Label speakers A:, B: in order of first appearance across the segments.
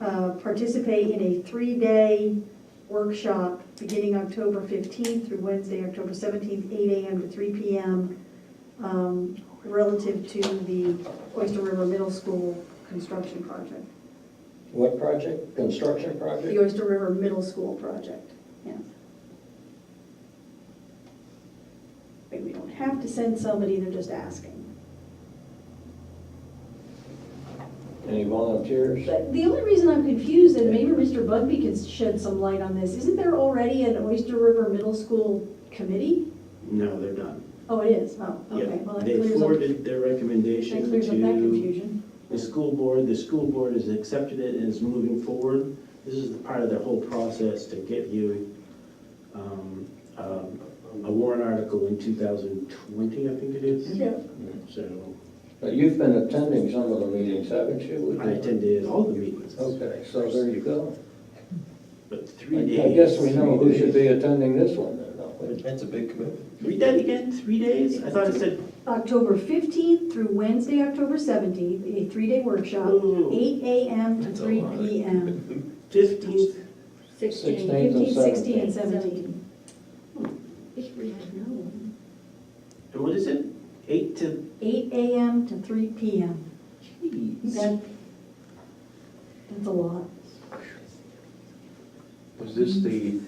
A: uh, participate in a three-day workshop beginning October 15th through Wednesday, October 17th, 8 AM to 3 PM, um, relative to the Oyster River Middle School construction project,
B: What project? Construction
A: the
B: project?
A: Oyster River Middle School project, yeah. But we don't have to send somebody, they're just asking.
B: Any volunteers?
A: But The only reason I'm confused, and maybe Mr. Bugby can shed some light on this, isn't there already an Oyster River Middle School committee?
C: No, they're done.
A: Oh, it is, oh, okay, well, that
C: They
A: clears up,
C: forwarded their
A: that
C: recommendation
A: clears up that
C: to
A: confusion.
C: the school board. The school board has accepted it and is moving forward. This is part of their whole process to get you um, um, a warrant article in 2020, I think it is.
A: Yeah.
C: So
B: But you've been attending some of the meetings, haven't you?
C: I attended all the meetings,
B: Okay, so there you go.
C: but three days.
B: Oh. I guess we know who
C: three
B: should
C: days.
B: be attending this one then, don't we?
D: That's a big commitment.
C: Read that again, three days? I thought it said,
A: October fifteenth through Wednesday, October seventeenth, a three-day workshop,
C: oh,
A: eight AM to
D: That's a
A: three
D: lot.
A: PM.
C: 15th,
E: Sixteen.
B: 16th and
A: Fifteen, sixteen, and
B: 17th.
A: seventeen.
E: If we had known.
C: and what is it? Eight to,
A: Eight AM to three PM.
C: geez.
A: That, that's a lot.
D: Was this the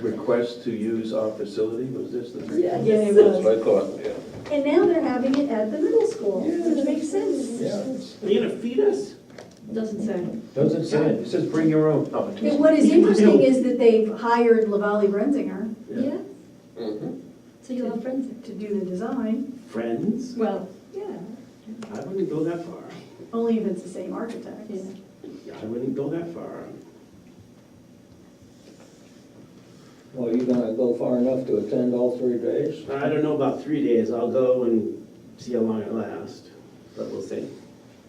D: request to use our facility? Was this the?
A: Yeah, yeah, it was.
D: That's what I thought, yeah.
A: And now they're having it at the middle school, which makes sense.
B: Yeah.
C: Are you gonna feed us?
A: Doesn't say.
D: Doesn't say, it It says bring your own. Oh, it
A: And
D: does.
A: what is interesting is that they've hired Lavalley Renzinger
E: Yeah, Mm-hmm.
B: Mhm.
E: so you'll have friends.
A: to do the design,
C: Friends?
E: Well, yeah.
C: I wouldn't go that far.
A: only if it's the same architect.
E: Yeah.
C: I wouldn't go that far.
B: Well, you gonna go far enough to attend all three days?
C: I don't know about three days. I'll go and see how long it lasts, but we'll see.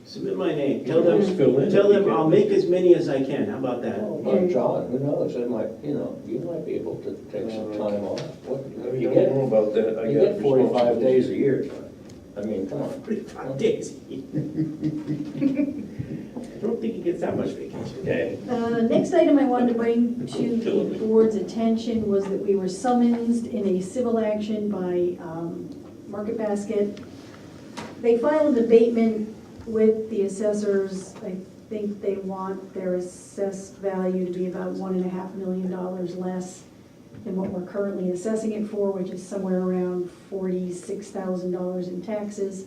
C: Submit my name. Tell them,
D: Just fill in if
C: tell
D: you
C: them
D: can.
C: I'll make as many as I can. How about that?
B: Oh, my John, who knows, it might, you know, you might be able to take some time off. What-
D: No, You
B: Uh, You
D: don't
B: get,
D: know about that. I
B: you
D: got
B: get forty-five
D: responsibilities.
B: days a year, John. I mean, come on.
C: Forty-five days. I don't think he gets that much vacation.
D: Okay.
A: Uh, Next item I wanted to bring to the board's attention was that we were summoned in a civil action by um, Market Basket. They filed an abatement with the assessors. I think they want their assessed value to be about one and a half million dollars less than what we're currently assessing it for, which is somewhere around forty-six thousand dollars in taxes.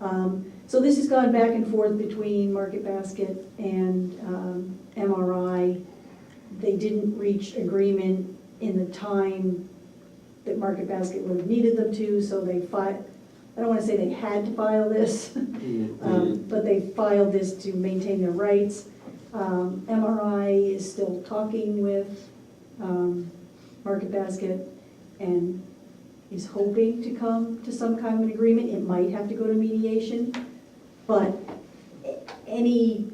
A: Um, So this has gone back and forth between Market Basket and um, MRI. They didn't reach agreement in the time that Market Basket would have needed them to, so they filed, I don't want to say they had to file this, um, but they filed this to maintain their rights. Um, MRI is still talking with um, Market Basket and is hoping to come to some kind of an agreement. It might have to go to mediation, but a- any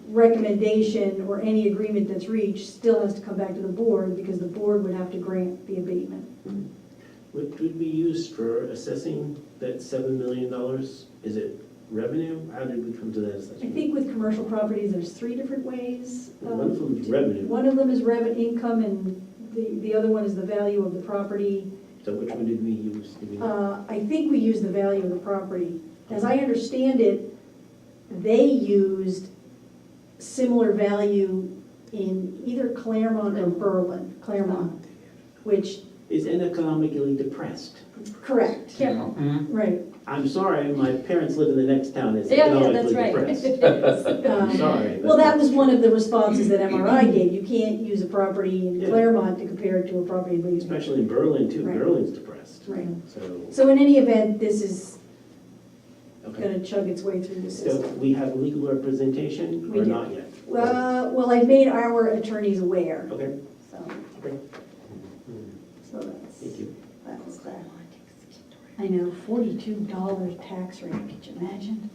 A: recommendation or any agreement that's reached still has to come back to the board because the board would have to grant the abatement.
C: What would we use for assessing that seven million dollars? Is it revenue? How did we come to that
A: I
C: assessment?
A: think with commercial properties, there's three different ways. um,
C: One of them is
A: to-
C: revenue.
A: One of them is revenue income and the, the other one is the value of the property.
C: So which one did we use? Did we-
A: Uh, I think we used the value of the property. As I understand it, they used similar value in either Claremont or Berlin, Claremont, which,
C: Is economically depressed.
A: correct,
E: Careful.
A: right.
C: I'm sorry, my parents live in the next town, it's
E: Yeah, yeah, that's
C: economically
E: right.
C: depressed. I'm
A: Um,
C: sorry.
A: Well, that was one of the responses that MRI gave. You can't use a property in
C: Yeah.
A: Claremont to compare it to a property in Williamsburg.
C: Especially in Berlin too,
A: Right.
C: Berlin's depressed,
A: Right.
C: so,
A: So in any event, this is
C: okay.
A: gonna chug its way through the
C: So
A: system.
C: we have legal representation
A: We
C: or
A: do.
C: not yet?
A: Well, well, I've made our attorneys aware,
C: Okay,
A: so,
C: great,
A: so that's.
C: thank you.
A: That's that. I know, forty-two dollar tax rate, could you imagine?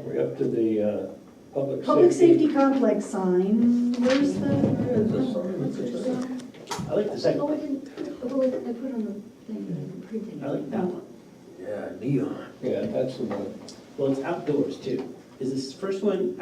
B: Are we up to the uh, public safety?
A: Public safety complex sign, where's the?
B: It's
C: I like the second,
E: Oh, I didn't, oh, I I put on the thing, the printing.
C: I like that one.
D: Yeah, neon.
B: a- Yeah, that's the one.
C: Well, it's outdoors too. Is this first one